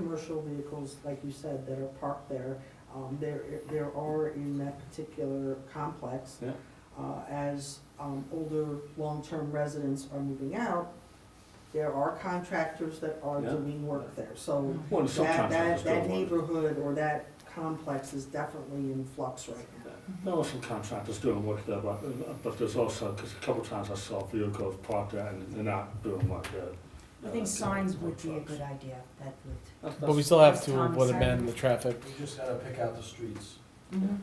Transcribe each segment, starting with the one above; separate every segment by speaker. Speaker 1: commercial vehicles, like you said, that are parked there. Um, there, there are in that particular complex.
Speaker 2: Yeah.
Speaker 1: Uh, as, um, older, long-term residents are moving out, there are contractors that are
Speaker 2: Yeah.
Speaker 1: doing work there, so
Speaker 2: Well,
Speaker 1: that,
Speaker 2: subcontractors
Speaker 1: that, that
Speaker 2: doing work.
Speaker 1: neighborhood or that complex is definitely in flux right now.
Speaker 2: There are some contractors doing work there, but, but there's also, because a couple times I saw vehicles parked there and they're uh, not doing work there.
Speaker 3: I think signs would be a good idea, that would.
Speaker 4: But we still have
Speaker 3: As
Speaker 4: to
Speaker 3: Tom
Speaker 4: would
Speaker 3: said.
Speaker 4: amend the traffic.
Speaker 5: We just gotta pick out the streets.
Speaker 3: Mm-hmm.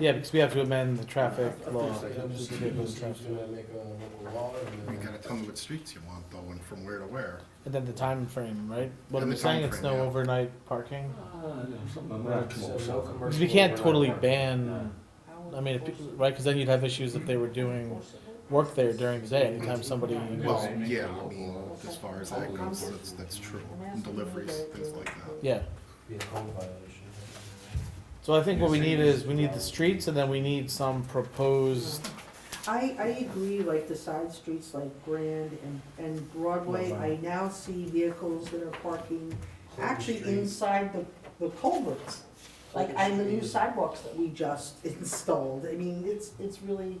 Speaker 4: Yeah, because we have to amend the traffic
Speaker 2: I think
Speaker 4: law.
Speaker 2: so.
Speaker 5: Pick up the streets, the streets we're gonna make on the local law, and
Speaker 6: You
Speaker 5: then-
Speaker 6: gotta tell me what streets you want though, and from where to where.
Speaker 4: And then the time frame, right? What I'm
Speaker 6: And the
Speaker 4: saying, it's
Speaker 6: timeframe,
Speaker 4: no
Speaker 6: yeah.
Speaker 4: overnight parking.
Speaker 2: Ah, Something
Speaker 5: Right,
Speaker 2: like that. Come up with
Speaker 5: so no
Speaker 2: something.
Speaker 4: Because
Speaker 5: commercial
Speaker 4: we can't
Speaker 5: overnight
Speaker 4: totally
Speaker 5: parking.
Speaker 4: ban, I mean, if, pe- right, because then you'd have issues if they were doing work there during the day, anytime somebody.
Speaker 6: Well, yeah, I mean, as far as that goes, that's, that's true, And deliveries, things like that.
Speaker 4: Yeah,
Speaker 5: Be a code violation.
Speaker 4: so I think what we need is, we need the streets and then we need some proposed,
Speaker 1: I, I agree, like the side streets like Grand and, and Broadway, I now see vehicles that are parking actually inside the, the culverts. Like, and the new sidewalks that we just installed, I mean, it's, it's really,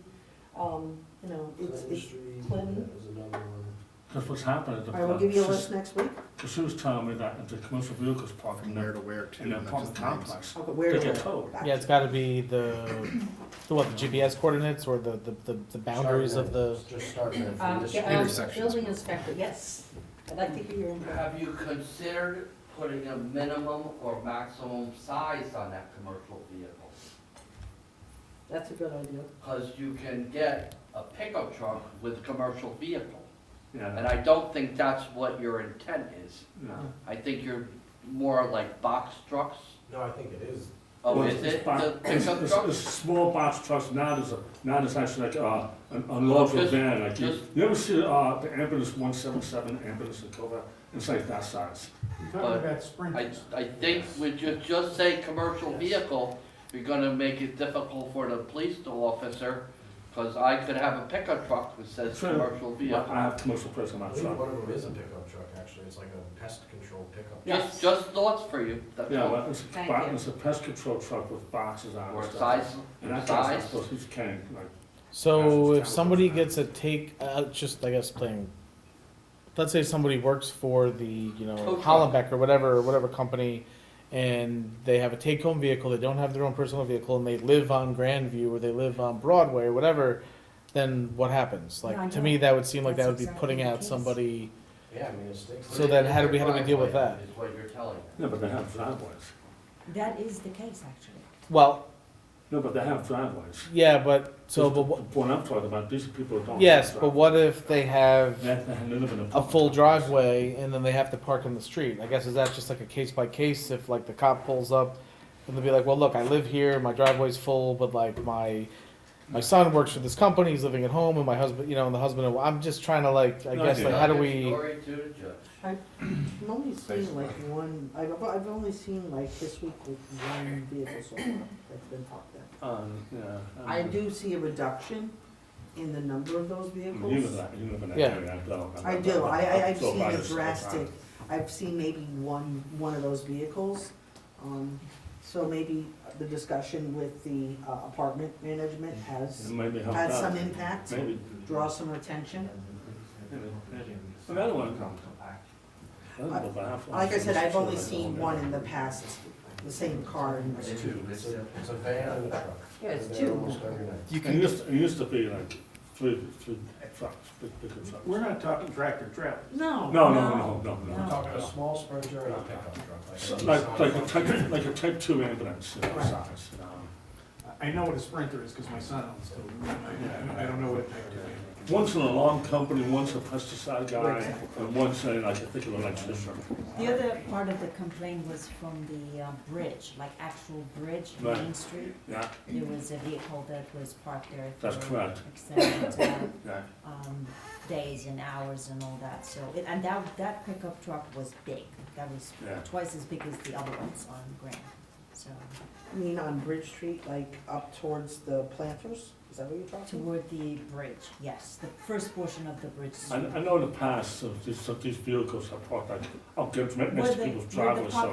Speaker 1: um, you know, it's,
Speaker 5: Clinton
Speaker 1: it's,
Speaker 5: Street,
Speaker 1: Clinton.
Speaker 5: that was another one.
Speaker 2: Because what's happening at the.
Speaker 1: I will give you a
Speaker 2: Sus-
Speaker 1: list next week,
Speaker 2: Because she was telling me that if the commercial vehicles parking
Speaker 6: From
Speaker 2: there,
Speaker 6: where to where
Speaker 2: in
Speaker 6: too,
Speaker 2: that
Speaker 6: not just
Speaker 2: apartment
Speaker 6: the names.
Speaker 2: complex,
Speaker 1: I'll go
Speaker 2: they
Speaker 1: where to
Speaker 2: get
Speaker 1: where.
Speaker 2: towed.
Speaker 4: yeah, it's gotta be the, the what, the GPS coordinates or the, the, the- the boundaries of
Speaker 5: Starting
Speaker 4: the.
Speaker 5: at- Just starting at from
Speaker 3: Um,
Speaker 5: this
Speaker 3: yeah,
Speaker 5: street.
Speaker 3: um,
Speaker 6: Intersections.
Speaker 3: building inspector, yes, I'd like to hear your input.
Speaker 7: Have you considered putting a minimum or maximum size on that commercial vehicle?
Speaker 1: That's a good idea.
Speaker 7: Because you can get a pickup truck with a commercial vehicle. And
Speaker 2: Yeah,
Speaker 7: I don't think that's what your intent is.
Speaker 2: yeah.
Speaker 7: I think you're more like box trucks.
Speaker 5: No, I think it is.
Speaker 7: Oh,
Speaker 2: Well,
Speaker 7: is
Speaker 2: it's
Speaker 7: it
Speaker 2: box-
Speaker 7: the
Speaker 2: It's,
Speaker 7: pickup
Speaker 2: it's-
Speaker 7: truck?
Speaker 2: it's small box trucks, now there's a, now there's actually like a, an unloadable
Speaker 7: Just-
Speaker 2: van, like you,
Speaker 7: just-
Speaker 2: you ever see, uh, the ambulance one seven seven ambulance in Cobra? It's like that size.
Speaker 7: But I, I think when you just say commercial vehicle, you're gonna make it difficult for the police officer, because I could have a pickup truck that says
Speaker 2: True.
Speaker 7: commercial
Speaker 2: I
Speaker 7: vehicle.
Speaker 2: I have commercial plates on
Speaker 5: I
Speaker 2: my
Speaker 5: believe
Speaker 2: truck.
Speaker 5: one of them is a pickup truck, actually. It's like a pest control pickup. truck.
Speaker 7: Just, just thoughts for you, that's
Speaker 2: Yeah,
Speaker 7: all.
Speaker 2: well, it's a,
Speaker 3: Thank
Speaker 2: bo-
Speaker 3: you.
Speaker 2: it's a pest control truck with boxes on it.
Speaker 7: Or
Speaker 2: and stuff.
Speaker 7: size,
Speaker 2: And that
Speaker 7: size.
Speaker 2: guy's supposed to be carrying, like,
Speaker 4: So
Speaker 2: That's
Speaker 4: if somebody
Speaker 2: terrible.
Speaker 4: gets a take, uh, just I guess playing. Let's say somebody works for the you know
Speaker 7: Tow truck.
Speaker 4: Hollenbeck or whatever whatever company, and they have a take home vehicle. They don't have their own personal vehicle, and they live on Grandview or they live on Broadway or whatever. Then what happens? Like
Speaker 3: No, I
Speaker 4: to me,
Speaker 3: know.
Speaker 4: that would seem like that
Speaker 3: That's
Speaker 4: would be
Speaker 3: exactly
Speaker 4: putting
Speaker 3: the
Speaker 4: out
Speaker 3: case.
Speaker 4: somebody.
Speaker 5: Yeah, I mean, it sticks.
Speaker 4: So then how do we- how do we deal with that?
Speaker 7: Is what you're telling me.
Speaker 2: no, but they have driveways.
Speaker 3: That is the case, actually.
Speaker 4: Well,
Speaker 2: No, but they have driveways.
Speaker 4: yeah, but so but
Speaker 2: The
Speaker 4: wha-
Speaker 2: point I'm talking about, these people don't. have
Speaker 4: yes, but
Speaker 2: driveways.
Speaker 4: what if they have?
Speaker 2: They have to live in
Speaker 4: a
Speaker 2: apartment
Speaker 4: full
Speaker 2: complex.
Speaker 4: driveway and then they have to park in the street. I guess is that just like a case by case if like the cop pulls up and they'll be like, well, look, I live here, my driveway's full, but like my my son works for this company, he's living at home, and my husband, you know, and the husband. I'm just trying to like, I
Speaker 2: No,
Speaker 4: guess
Speaker 2: yeah.
Speaker 4: like, how do
Speaker 7: Your
Speaker 4: we?
Speaker 7: Story to the judge.
Speaker 1: I've only seen like one, I've, I've only seen like this week with one vehicle so far that's been parked there.
Speaker 2: Um, yeah.
Speaker 1: I
Speaker 2: um,
Speaker 1: do see a reduction in the number of those
Speaker 2: You live in
Speaker 1: vehicles.
Speaker 2: that, you live in that
Speaker 4: Yeah.
Speaker 2: area, I don't.
Speaker 1: I do, I, I, I've
Speaker 2: So
Speaker 1: seen
Speaker 2: I
Speaker 1: a
Speaker 2: just-
Speaker 1: drastic, I've seen maybe one, one of those vehicles. Um, so maybe the discussion with the uh, apartment management
Speaker 2: It
Speaker 1: has,
Speaker 2: Maybe help
Speaker 1: had
Speaker 2: out.
Speaker 1: some impact,
Speaker 2: Maybe.
Speaker 1: draw some attention.
Speaker 2: Another one comes.
Speaker 1: Like I said, I've only seen one in the past, the same car in the
Speaker 7: It's
Speaker 1: two.
Speaker 7: two, it's
Speaker 5: It's a, it's a van and a truck.
Speaker 1: Yeah, it's
Speaker 5: They're there
Speaker 1: two.
Speaker 5: almost every night.
Speaker 8: You
Speaker 2: It
Speaker 8: can,
Speaker 2: used, it used to be like three, three trucks, big, big trucks.
Speaker 8: we're not talking tractor trailer.
Speaker 1: No.
Speaker 2: No, no, no, no,
Speaker 5: We're
Speaker 2: no.
Speaker 5: talking a small Sprinter and a pickup truck. like a
Speaker 2: So,
Speaker 5: Nissan
Speaker 2: Like, like a
Speaker 5: Altima.
Speaker 2: type, like a type two ambulance, you know,
Speaker 1: Right.
Speaker 2: size, you know.
Speaker 8: I know what a sprinter is because my son owns two. I- I don't know what a tractor is.
Speaker 2: One's an alarm company, one's a pesticide guy, and one's a, like, I think an electrician.
Speaker 3: The other part of the complaint was from the uh, bridge, like actual bridge,
Speaker 2: Right.
Speaker 3: Main Street.
Speaker 2: Yeah,
Speaker 3: There was a vehicle that was parked there.
Speaker 2: That's
Speaker 3: for
Speaker 2: correct.
Speaker 3: Extended uh,
Speaker 2: yeah.
Speaker 3: um, days and hours and all that, so, it- and that, that pickup truck was big. That was
Speaker 2: Yeah.
Speaker 3: twice as big as the other ones on Grand, so,
Speaker 1: I mean, on Bridge Street, like up towards the planters, is that what you're talking about?
Speaker 3: toward the bridge, yes, the first portion of the bridge.
Speaker 2: I, I know in the past, so these, so these vehicles are parked like, I'll get next
Speaker 3: Were
Speaker 2: to
Speaker 3: the-
Speaker 2: people's
Speaker 3: were the
Speaker 2: driveways, so.